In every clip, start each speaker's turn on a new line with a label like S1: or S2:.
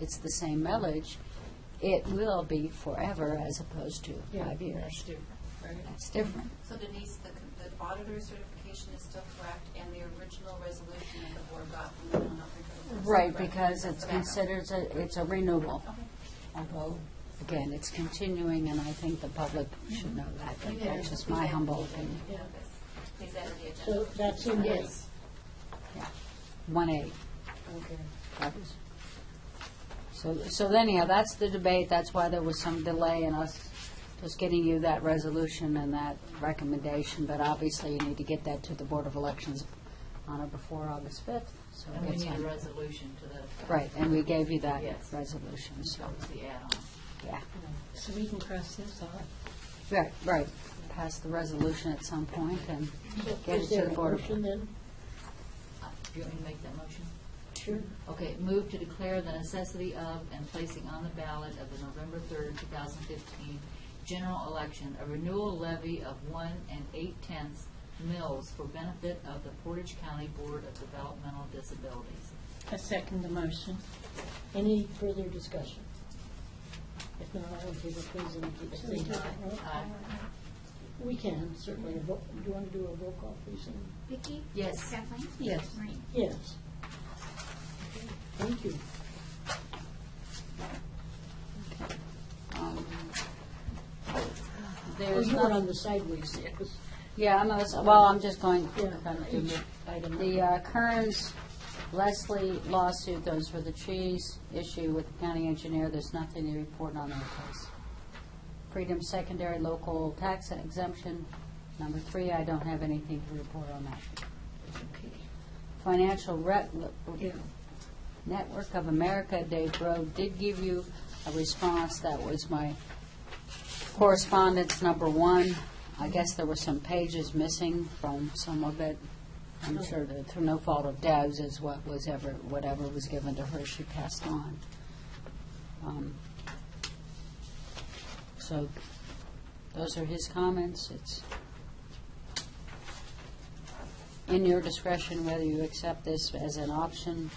S1: it's the same mileage, it will be forever as opposed to five
S2: That's
S1: years.
S2: different, right?
S1: That's different.
S3: So Denise, the the auditor's certification is still correct, and the original resolution that the board got from the non-renewable.
S1: Right, because it's
S3: Okay.
S1: considered, a- it's a renewable.
S3: Okay.
S1: Although, again, it's continuing, and I think the public should know that. but
S3: Yeah.
S1: That's just my humble opinion.
S3: Yeah, that's- Please add to the agenda.
S2: So that's in this.
S1: Yeah, one A.
S2: Okay.
S1: So, so anyhow, that's the debate, that's why there was some delay in us just getting you that resolution and that recommendation, but obviously you need to get that to the Board of Elections on or before August fifth, so
S4: And we
S1: it's
S4: need a
S1: on.
S4: resolution to that. effect.
S1: Right, and we gave you that
S4: Yes.
S1: resolution, so,
S4: That was the add-on.
S1: yeah.
S2: So we can cross this off.
S1: Right, right, pass the resolution at some point and get it
S2: Is
S1: to
S2: there
S1: the
S2: a
S1: Board of.
S2: motion then?
S4: Uh, Do you want me to make that motion?
S2: Sure.
S4: Okay, move to declare the necessity of and placing on the ballot of the November third, two thousand fifteen general election, a renewal levy of one and eight-tenths mills for benefit of the Portage County Board of Developmental Disabilities.
S2: I second the motion. Any further discussion? If not, all in favor, please indicate by saying aye.
S4: Aye.
S2: We can certainly, a vo- do you want to do a roll call, please? and-
S5: Vicki?
S4: Yes.
S5: Kathleen?
S2: Yes.
S5: Maureen?
S2: Yes. Thank you.
S1: um,
S2: Oh,
S1: There's
S2: you were
S1: nothing.
S2: on the sideways there.
S1: Yeah, I'm, gonna s- well, I'm just going,
S2: Yeah.
S1: kind of do-
S2: Item.
S1: the uh, Kearns Leslie lawsuit, those were the cheese issue with the county engineer, there's nothing to report on that case. Freedom Secondary Local Tax Exemption, number three, I don't have anything to report on that. Financial Rep,
S2: Yeah.
S1: Network of America, Dave Grove, did give you a response. That was my correspondence number one. I guess there were some pages missing from some of it. I'm sure that through no fault of Deb's is what was ever, whatever was given to her, she passed on. Um, So those are his comments. It's in your discretion whether you accept this as an option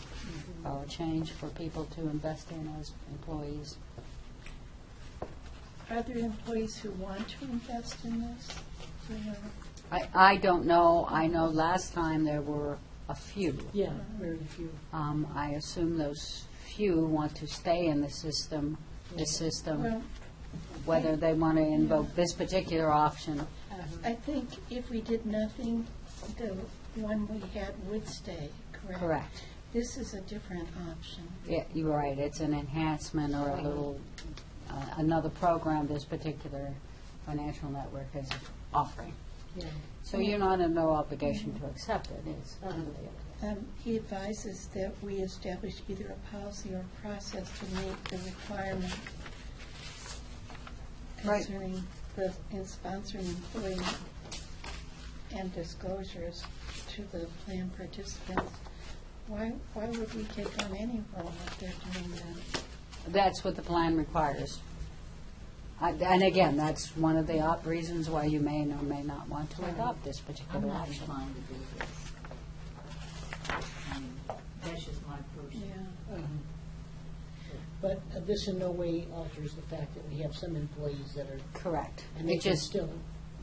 S1: uh, or a change for people to invest in as employees.
S6: Are there employees who want to invest in this? Do you know?
S1: I, I don't know, I know last time there were a few.
S2: Yeah, very few.
S1: Um, I assume those few want to stay in the system, the
S6: Well,
S1: system, whether they want to invoke this particular option.
S6: I think if we did nothing, the one we had would stay, correct?
S1: Correct.
S6: This is a different option.
S1: Yeah, you're right, it's an enhancement or a little, uh, another program this particular financial network is offering.
S2: Yeah.
S1: So you're not in no obligation to accept it, is totally up
S6: Um, He advises that we establish either a policy or process to meet the requirement
S1: Right.
S6: concerning the, in sponsoring employee and disclosures to the plan participants. Why, why would we take on any role if they're doing that?
S1: That's what the plan requires. I- And again, that's one of the op- reasons why you may or may not want to adopt this
S4: I'm
S1: particular
S4: not
S1: option.
S4: inclined to do this. I mean, That's just my personal.
S2: Um, But uh, this in no way alters the fact that we have some employees that are,
S1: Correct.
S2: and they
S1: It
S2: can
S1: just
S2: still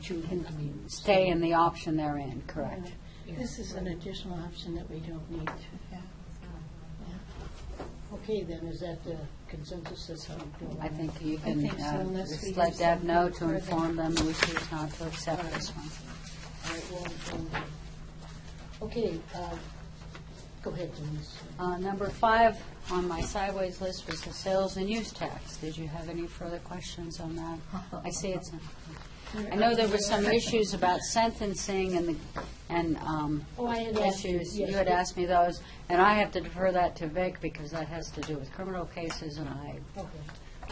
S2: choose, I mean.
S1: stay in the option they're in, correct.
S6: Yeah. This is an additional option that we don't need to have.
S2: Okay, then, is that the consensus that's how we do it?
S1: I think you
S6: I
S1: can
S6: think so,
S1: uh,
S6: unless we
S1: just
S6: do
S1: let Deb know
S6: something
S1: to
S6: further.
S1: inform them we choose not to accept this one.
S2: All right, well, um, Okay, uh, go ahead, Denise.
S1: Uh, Number five on my sideways list was the sales and use tax. Did you have any further questions on that? I see it's, I know there were some issues about sentencing and, the and um,
S2: Oh, I had asked you,
S1: issues. You
S2: yes.
S1: had asked me those, and I have to defer that to Vic because that has to do with criminal cases, and I,
S2: Okay.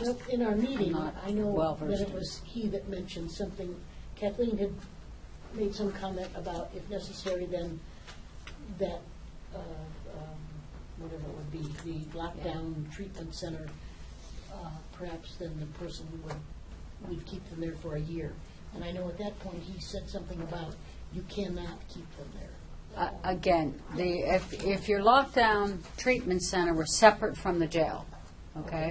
S2: Well, in our meeting,
S1: I'm not
S2: I know that
S1: well-versed
S2: it
S1: in
S2: was he that mentioned something, Kathleen had made some comment about if necessary, then that, uh, um, whatever it would be, the lockdown treatment center, uh, perhaps then the person would, would keep them there for a year. And I know at that point, he said something about you cannot keep them there.
S1: uh, again, the, if, if your lockdown treatment center were separate from the jail, okay?